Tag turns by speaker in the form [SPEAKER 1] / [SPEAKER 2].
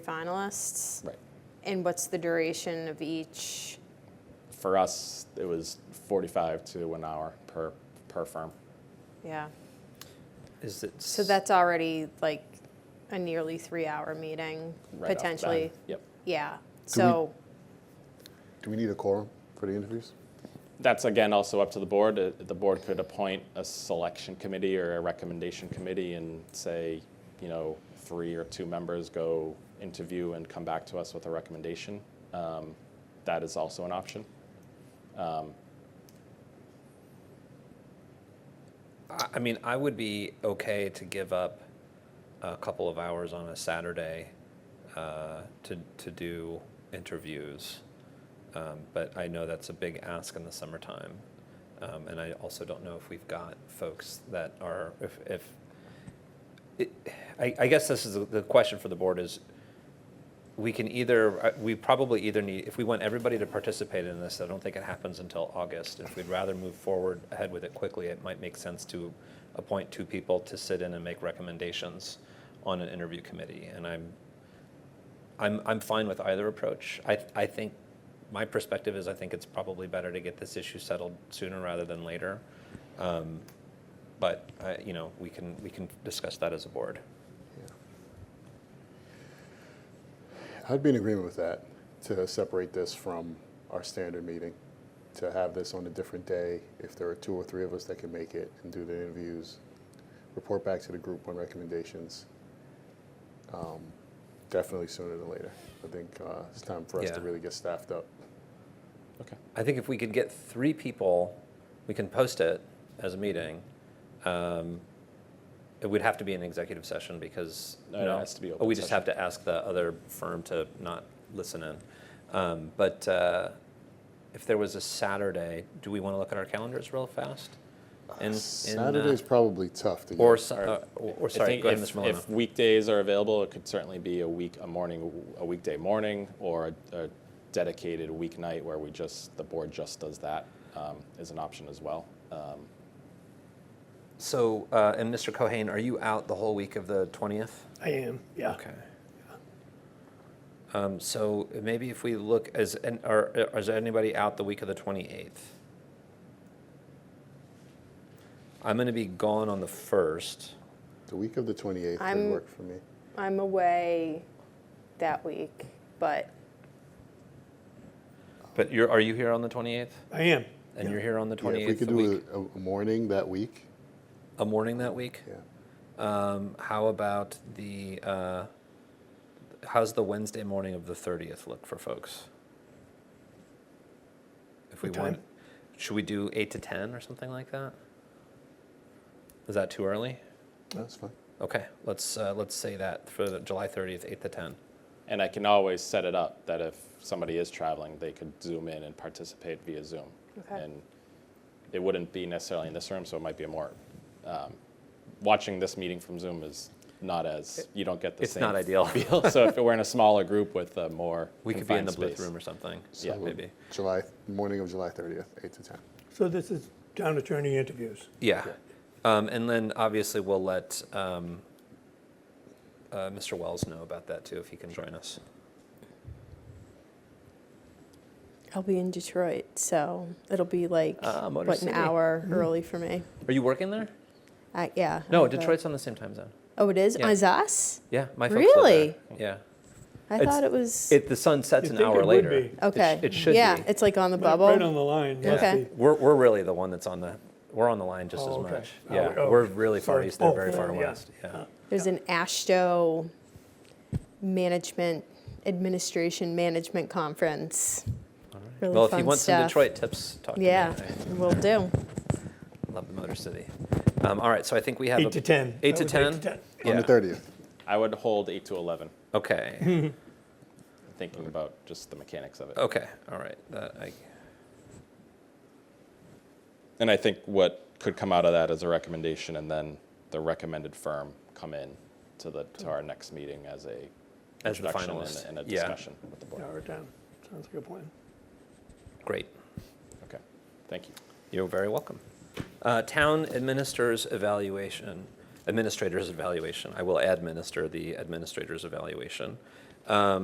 [SPEAKER 1] finalists?
[SPEAKER 2] Right.
[SPEAKER 1] And what's the duration of each?
[SPEAKER 2] For us, it was 45 to an hour per, per firm.
[SPEAKER 1] Yeah.
[SPEAKER 3] Is it?
[SPEAKER 1] So that's already like a nearly three hour meeting
[SPEAKER 2] right off the bat.
[SPEAKER 1] potentially.
[SPEAKER 2] Yep.
[SPEAKER 1] Yeah. So,
[SPEAKER 4] Do we need a quorum for the interviews?
[SPEAKER 2] That's again also up to the board. Uh, The board could appoint a selection committee or a recommendation committee and say, you know, three or two members go interview and come back to us with a recommendation. Um, That is also an option. Um,
[SPEAKER 3] I I mean, I would be okay to give up a couple of hours on a Saturday uh, to to do interviews, um, but I know that's a big ask in the summertime, um, and I also don't know if we've got folks that are if if. It, I, I guess this is the- the question for the board is. We can either I- we probably either need if we want everybody to participate in this. I don't think it happens until August. If we'd rather move forward ahead with it quickly, it might make sense to appoint two people to sit in and make recommendations on an interview committee. And I'm I'm, I'm fine with either approach. I, I think, my perspective is I think it's probably better to get this issue settled sooner rather than later. Um, But, I- you know, we can, we can discuss that as a board.
[SPEAKER 4] I'd be in agreement with that, to separate this from our standard meeting, to have this on a different day, if there are two or three of us that can make it and do the interviews, report back to the group on recommendations. Um, Definitely sooner than later. I think uh, it's time for us to
[SPEAKER 3] Yeah.
[SPEAKER 4] really get staffed up.
[SPEAKER 2] Okay.
[SPEAKER 3] I think if we could get three people, we can post it as a meeting. Um, It would have to be an executive session because.
[SPEAKER 2] No, it
[SPEAKER 3] you know-
[SPEAKER 2] has to be
[SPEAKER 3] Oh,
[SPEAKER 2] open
[SPEAKER 3] we just
[SPEAKER 2] session.
[SPEAKER 3] have to ask the other firm to not listen in. Um, But uh, if there was a Saturday, do we want to look at our calendars real fast? In- in, uh,
[SPEAKER 4] Saturday's probably tough to get.
[SPEAKER 3] Or, so- uh, or- or,
[SPEAKER 2] I
[SPEAKER 3] sorry,
[SPEAKER 2] think
[SPEAKER 3] go ahead,
[SPEAKER 2] if,
[SPEAKER 3] Mr.
[SPEAKER 2] if
[SPEAKER 3] Milano.
[SPEAKER 2] weekdays are available, it could certainly be a week, a morning, a weekday morning, or a, a dedicated weeknight where we just the board just does that um, is an option as well. Um,
[SPEAKER 3] So, uh, and Mr. Cohen, are you out the whole week of the 20th?
[SPEAKER 5] I am, yeah.
[SPEAKER 3] Okay. Um, so maybe if we look, is, and are, is there anybody out the week of the 28th? I'm going to be gone on the 1st.
[SPEAKER 4] The week of the 28th
[SPEAKER 1] I'm-
[SPEAKER 4] would work for me.
[SPEAKER 1] I'm away that week, but
[SPEAKER 3] But you're, are you here on the 28th?
[SPEAKER 5] I am.
[SPEAKER 3] And you're here on the
[SPEAKER 4] Yeah,
[SPEAKER 3] 28th?
[SPEAKER 4] If we could
[SPEAKER 3] the
[SPEAKER 4] do
[SPEAKER 3] week-
[SPEAKER 4] a- a morning that week,
[SPEAKER 3] a morning that week?
[SPEAKER 4] yeah.
[SPEAKER 3] Um, how about the, uh, how's the Wednesday morning of the 30th look for folks? If we
[SPEAKER 5] What
[SPEAKER 3] want,
[SPEAKER 5] time?
[SPEAKER 3] should we do 8 to 10 or something like that? Is that too early?
[SPEAKER 4] That's fine.
[SPEAKER 3] Okay, let's, uh, let's say that for the July 30th, 8 to 10.
[SPEAKER 2] And I can always set it up that if somebody is traveling, they could zoom in and participate via Zoom.
[SPEAKER 1] Okay.
[SPEAKER 2] And it wouldn't be necessarily in this room, so it might be a more. Um, watching this meeting from Zoom is not as you don't get the
[SPEAKER 3] It's
[SPEAKER 2] same
[SPEAKER 3] not ideal.
[SPEAKER 2] feel. so if it were in a smaller group with a more
[SPEAKER 3] We could be in
[SPEAKER 2] confined
[SPEAKER 3] the booth
[SPEAKER 2] space.
[SPEAKER 3] room or something.
[SPEAKER 2] Yeah,
[SPEAKER 3] maybe.
[SPEAKER 4] July, morning of July 30th, 8 to 10.
[SPEAKER 5] So this is town attorney interviews.
[SPEAKER 3] Yeah. Um, and then obviously we'll let um, uh, Mr. Wells know about that too if he can join us.
[SPEAKER 1] I'll be in Detroit, so it'll be like
[SPEAKER 3] Ah, Motor
[SPEAKER 1] what
[SPEAKER 3] City.
[SPEAKER 1] an hour early for me.
[SPEAKER 3] Are you working there?
[SPEAKER 1] I, yeah. I
[SPEAKER 3] No,
[SPEAKER 1] have a-
[SPEAKER 3] Detroit's on the same time zone.
[SPEAKER 1] oh, it is.
[SPEAKER 3] yeah.
[SPEAKER 1] Is us?
[SPEAKER 3] Yeah, my folks live
[SPEAKER 1] Really?
[SPEAKER 3] there. Yeah.
[SPEAKER 1] I
[SPEAKER 3] It's-
[SPEAKER 1] thought it was.
[SPEAKER 3] It, the sun sets
[SPEAKER 5] You'd
[SPEAKER 3] an
[SPEAKER 5] think
[SPEAKER 3] hour
[SPEAKER 5] it would
[SPEAKER 3] later.
[SPEAKER 5] be.
[SPEAKER 3] It sh-
[SPEAKER 1] okay.
[SPEAKER 3] It, should
[SPEAKER 1] yeah,
[SPEAKER 3] be.
[SPEAKER 1] it's like on the
[SPEAKER 5] Right-
[SPEAKER 1] bubble.
[SPEAKER 5] Right on the line, must
[SPEAKER 1] Okay.
[SPEAKER 5] be.
[SPEAKER 3] We're, we're really the one that's on the, we're on the line just
[SPEAKER 5] Oh,
[SPEAKER 3] as
[SPEAKER 5] okay.
[SPEAKER 3] much.
[SPEAKER 5] Oh,
[SPEAKER 3] Yeah,
[SPEAKER 5] oh,
[SPEAKER 3] we're really far
[SPEAKER 5] sorry.
[SPEAKER 3] east, they're
[SPEAKER 5] Oh,
[SPEAKER 3] very far
[SPEAKER 5] yeah.
[SPEAKER 3] west. Yeah.
[SPEAKER 1] There's an Ashto management administration management conference. Really
[SPEAKER 3] well, if
[SPEAKER 1] fun
[SPEAKER 3] you want some
[SPEAKER 1] stuff.
[SPEAKER 3] Detroit tips, talk
[SPEAKER 1] Yeah,
[SPEAKER 3] to me.
[SPEAKER 1] will do.
[SPEAKER 3] I love the Motor City. Um, all right, so I think we have a-
[SPEAKER 5] Eight to 10.
[SPEAKER 3] Eight to
[SPEAKER 5] That was eight
[SPEAKER 3] 10?
[SPEAKER 5] to 10.
[SPEAKER 4] On
[SPEAKER 3] Yeah.
[SPEAKER 4] the 30th.
[SPEAKER 2] I would hold eight to eleven,
[SPEAKER 3] Okay.
[SPEAKER 2] thinking about just the mechanics of it.
[SPEAKER 3] okay. All right. That, I,
[SPEAKER 2] And I think what could come out of that is a recommendation, and then the recommended firm come in to the to our next meeting as a
[SPEAKER 3] As the
[SPEAKER 2] introduction
[SPEAKER 3] finalist.
[SPEAKER 2] and, and a
[SPEAKER 3] Yeah.
[SPEAKER 2] discussion with the board.
[SPEAKER 5] Yeah, we're down. Sounds like a plan.
[SPEAKER 3] great.
[SPEAKER 2] Okay, thank you.
[SPEAKER 3] You're very welcome. Uh, town administers evaluation, administrator's evaluation. I will administer the administrator's evaluation.